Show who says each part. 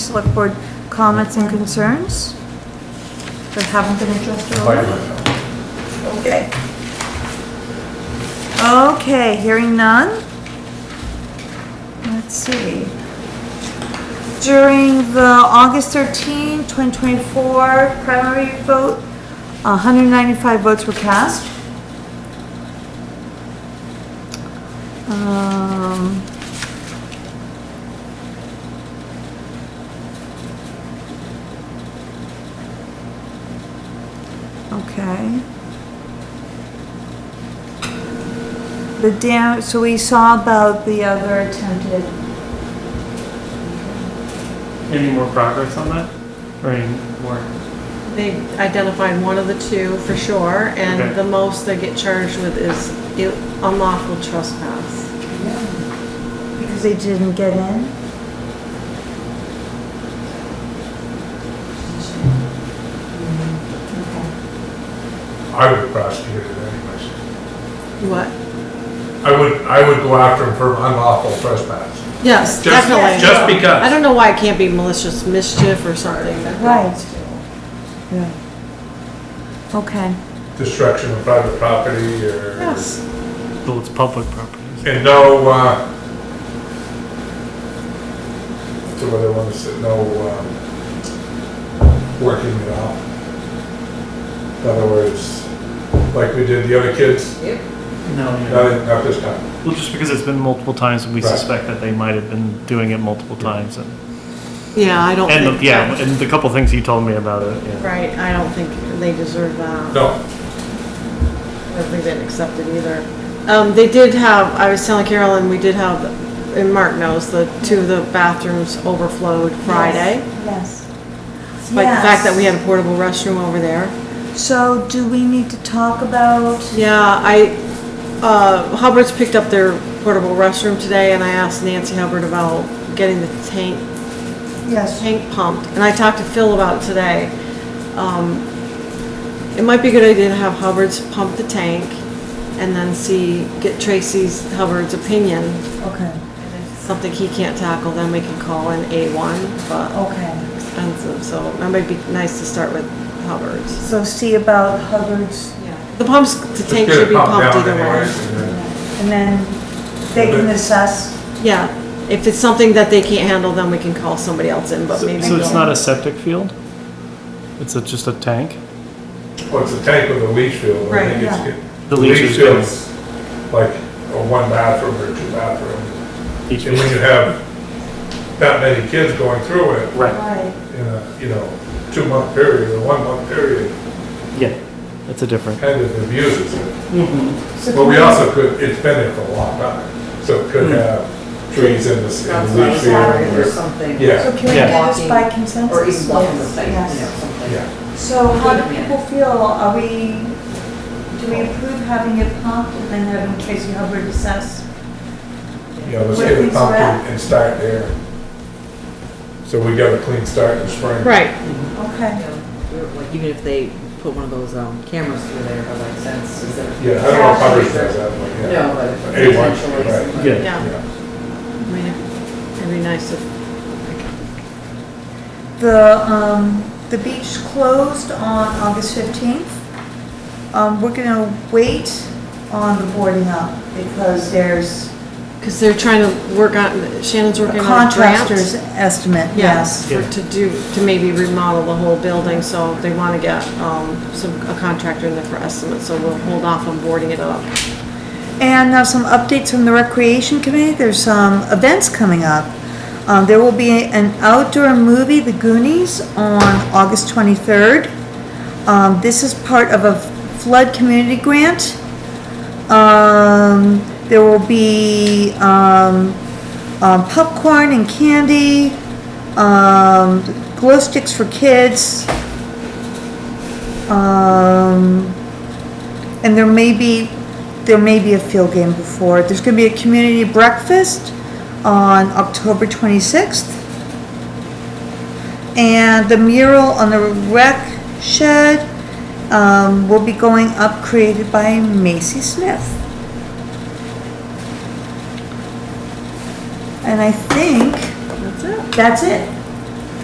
Speaker 1: select board comments and concerns that haven't been addressed already?
Speaker 2: Okay.
Speaker 1: Okay, hearing none. Let's see. During the August 13, 2024 primary vote, 195 votes were cast. Um, Okay. The dam, so we saw about the other attempted,
Speaker 3: Any more progress on that? Or any more?
Speaker 4: They identified one of the two for sure,
Speaker 3: Okay.
Speaker 4: and the most they get charged with is i- unlawful trespass.
Speaker 1: because they didn't get in.
Speaker 5: I would prosecute it anyways.
Speaker 4: What?
Speaker 5: I would, I would go after him for unlawful trespass.
Speaker 4: Yes,
Speaker 5: Just,
Speaker 4: definitely.
Speaker 5: just
Speaker 4: I
Speaker 5: because.
Speaker 4: don't know why it can't be malicious mischief or something.
Speaker 1: Right. Yeah. Okay,
Speaker 5: Destruction of private property or.
Speaker 4: Yes,
Speaker 3: Well, it's public properties.
Speaker 5: And no, uh, to what I want to say, no, um, working it out. In other words, like we did the other kids,
Speaker 3: No, yeah.
Speaker 5: not, not this time.
Speaker 3: Well, just because it's been multiple times and we
Speaker 5: Right.
Speaker 3: suspect that they might have been doing it multiple times and,
Speaker 4: yeah, I don't think.
Speaker 3: and, yeah, and the couple things you told me about it, yeah.
Speaker 4: Right, I don't think they deserve that.
Speaker 5: No,
Speaker 4: I think they didn't accept it either. Um, they did have, I was telling Carolyn, we did have, and Mark knows, the two of the bathrooms overflowed Friday.
Speaker 1: yes.
Speaker 4: Like the fact that we had a portable restroom over there.
Speaker 1: So do we need to talk about,
Speaker 4: Yeah, I, uh, Hubbard's picked up their portable restroom today and I asked Nancy Hubbard about getting the tank,
Speaker 1: yes,
Speaker 4: tank pumped. And I talked to Phil about it today. Um, it might be a good idea to have Hubbard's pump the tank and then see, get Tracy's, Hubbard's opinion.
Speaker 1: okay,
Speaker 4: Something he can't tackle, then we can call in A1, but
Speaker 1: okay.
Speaker 4: expensive, so it might be nice to start with Hubbard's.
Speaker 1: So see about Hubbard's,
Speaker 4: The pumps, the
Speaker 5: just
Speaker 4: tank
Speaker 5: get
Speaker 4: should
Speaker 5: it
Speaker 4: be
Speaker 5: pumped
Speaker 4: pumped
Speaker 5: down
Speaker 4: either way.
Speaker 5: anyways. and then-
Speaker 1: and then they can assess.
Speaker 4: Yeah, if it's something that they can't handle, then we can call somebody else in, but
Speaker 3: So
Speaker 4: maybe.
Speaker 3: so it's not a septic field? It's a, just a tank?
Speaker 5: Well, it's a tank with a leach field. I
Speaker 4: Right,
Speaker 5: think it's
Speaker 1: yeah.
Speaker 5: good.
Speaker 3: The leach is good.
Speaker 5: field's Like a one bathroom or two bathroom.
Speaker 3: Each-
Speaker 5: And when you have that many kids going through it
Speaker 3: Right,
Speaker 1: Right.
Speaker 5: in a, you know, two month period or one month period,
Speaker 3: yeah, that's a different.
Speaker 5: kind of abuses it.
Speaker 1: So
Speaker 5: But we
Speaker 1: can
Speaker 5: also could, it's been there for a long time, so it could
Speaker 3: Hmm.
Speaker 5: have trees in this, in the leach field.
Speaker 2: Or
Speaker 5: or-
Speaker 2: something.
Speaker 5: Yeah,
Speaker 1: So can we
Speaker 3: Yeah.
Speaker 1: do this by consensus?
Speaker 2: Or even walking the site, you know,
Speaker 1: Yes.
Speaker 2: something.
Speaker 5: yeah.
Speaker 1: So how do people feel? Are we, do we approve having it pumped and then having Tracy Hubbard assess?
Speaker 5: You know, let's
Speaker 1: Where
Speaker 5: get it
Speaker 1: things are
Speaker 5: pumped
Speaker 1: at?
Speaker 5: and start there. So we got a clean start in spring.
Speaker 4: Right,
Speaker 1: Okay.
Speaker 2: Or, Like, even if they put one of those, um, cameras through there, by like sense, is that?
Speaker 5: Yeah, I don't know if Hubbard's does that, but yeah.
Speaker 2: No, but
Speaker 5: A
Speaker 2: if
Speaker 5: one,
Speaker 2: potentially
Speaker 5: right.
Speaker 2: somebody-
Speaker 3: Yeah.
Speaker 4: yeah,
Speaker 5: Yeah.
Speaker 4: I mean, it'd be nice if,
Speaker 1: The, um, the beach closed on August 15th. Um, we're gonna wait on the boarding up because there's
Speaker 4: because they're trying to work on, Shannon's
Speaker 1: a
Speaker 4: working on a
Speaker 1: contractor's
Speaker 4: grant.
Speaker 1: estimate,
Speaker 4: Yes,
Speaker 1: yes.
Speaker 4: for, to do, to maybe remodel the whole building, so they want to get, um, some, a contractor in there for estimates, so we'll hold off on boarding it up.
Speaker 1: And now some updates from the Recreation Committee. There's some events coming up. Um, there will be an outdoor movie, The Goonies, on August 23rd. Um, this is part of a flood community grant. Um, there will be, um, um, popcorn and candy, um, glow sticks for kids. Um, and there may be, there may be a field game before. it. There's gonna be a community breakfast on October twenty-sixth. And the mural on the rec shed, um, will be going up created by Macy Smith. And I think
Speaker 4: That's it.
Speaker 1: that's it.